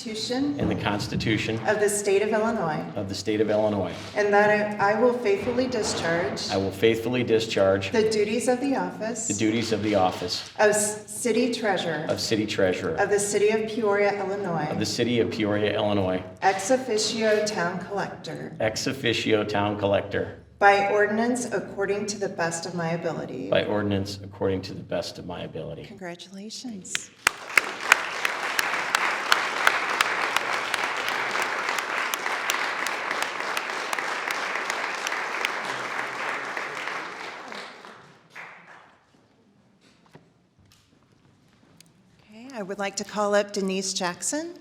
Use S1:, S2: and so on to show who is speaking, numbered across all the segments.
S1: Constitution
S2: and the Constitution
S1: of the State of Illinois,
S2: of the State of Illinois.
S1: and that I I will faithfully discharge
S2: I will faithfully discharge
S1: the duties of the
S2: the
S1: office
S2: duties of the office
S1: of s- City Treasurer
S2: of City Treasurer
S1: of the City of Peoria,
S2: of the
S1: Illinois,
S2: City of Peoria, Illinois,
S1: ex officio Town Collector,
S2: ex officio Town Collector
S1: by ordinance according to the best of my ability.
S2: by ordinance according to the best of my ability.
S1: Congratulations. Okay, I would like to call up Denise Jackson.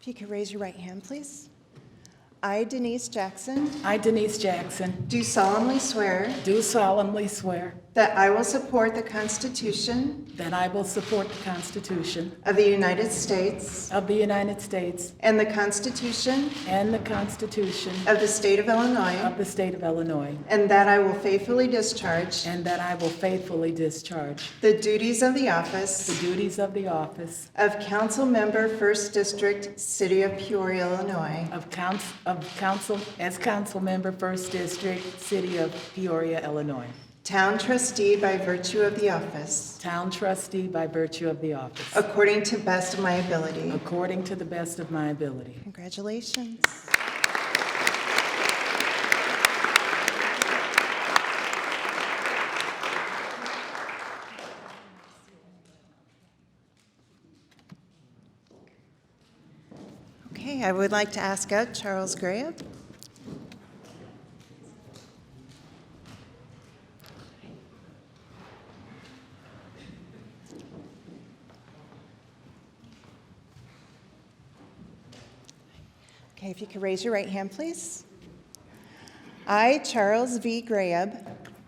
S1: If you could raise your right hand, please. I, Denise Jackson,
S3: I, Denise Jackson,
S1: do solemnly swear
S3: do solemnly swear
S1: that I will support the Constitution
S3: that I will support the Constitution
S1: of the United States
S3: of the United States
S1: and the Constitution
S3: and the Constitution
S1: of the State of Illinois,
S3: of the State of Illinois,
S1: and that I will faithfully discharge
S3: and that I will faithfully discharge
S1: the duties of the
S3: the
S1: office
S3: duties of the office
S1: of Council Member, First District, City of Peoria, Illinois,
S3: of council, of council, as council member, First District, City of Peoria, Illinois,
S1: Town Trustee by virtue of the office,
S3: town trustee by virtue of the office,
S1: according to best of my ability.
S3: according to the best of my ability.
S1: Congratulations. Okay, I would like to ask out Charles Graham. Okay, if you could raise your right hand, please. I, Charles V. Graham,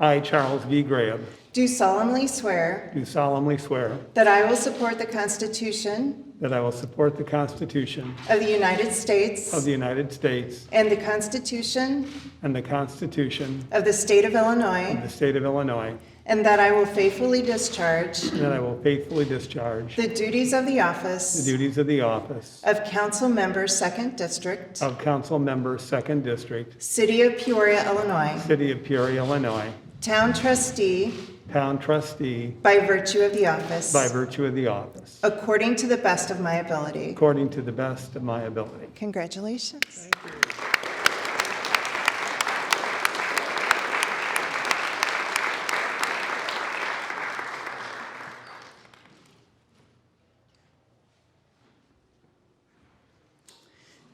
S4: I, Charles V. Graham,
S1: do solemnly swear
S4: do solemnly swear
S1: that I will support the Constitution
S4: that I will support the Constitution
S1: of the United States
S4: of the United States
S1: and the Constitution
S4: and the Constitution
S1: of the State of
S4: of the
S1: Illinois,
S4: State of Illinois,
S1: and that I will faithfully discharge
S4: and that I will faithfully discharge
S1: the duties of the
S4: the
S1: office
S4: duties of the office
S1: of Council Member, Second District,
S4: of Council Member, Second District,
S1: City of Peoria, Illinois,
S4: City of Peoria, Illinois,
S1: Town Trustee
S4: Town Trustee
S1: by virtue of the office,
S4: by virtue of the office,
S1: according to the best of my ability.
S4: according to the best of my ability.
S1: Congratulations.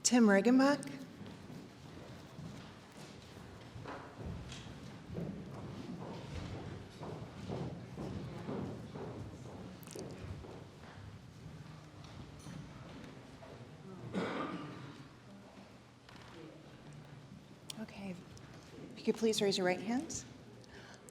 S1: Tim Riggenbach. Okay. If you could please raise your right hands.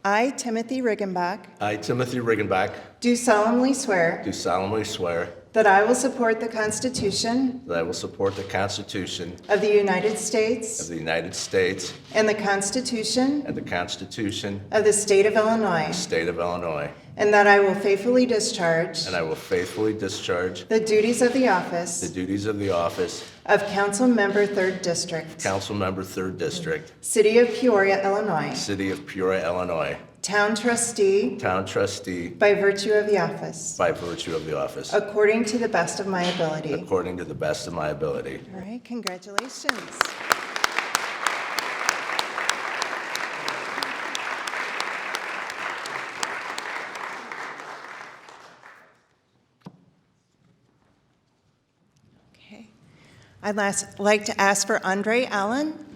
S1: I, Timothy Riggenbach,
S5: I, Timothy Riggenbach,
S1: do solemnly swear
S5: do solemnly swear
S1: that I will support the Constitution
S5: that I will support the Constitution
S1: of the United
S5: of
S1: States
S5: the United States
S1: and the Constitution
S5: and the Constitution
S1: of the State of
S5: of the
S1: Illinois,
S5: State of Illinois,
S1: and that I will faithfully discharge
S5: and I will faithfully discharge
S1: the duties of the
S5: the
S1: office
S5: duties of the office
S1: of Council Member, Third District,
S5: Council Member, 3rd District,
S1: City of Peoria, Illinois,
S5: City of Peoria, Illinois,
S1: Town Trustee
S5: Town Trustee
S1: by virtue of the office,
S5: by virtue of the office,
S1: according to the best of my ability.
S5: according to the best of my ability.
S1: All right, congratulations. Okay. I'd last- like to ask for Andre Allen.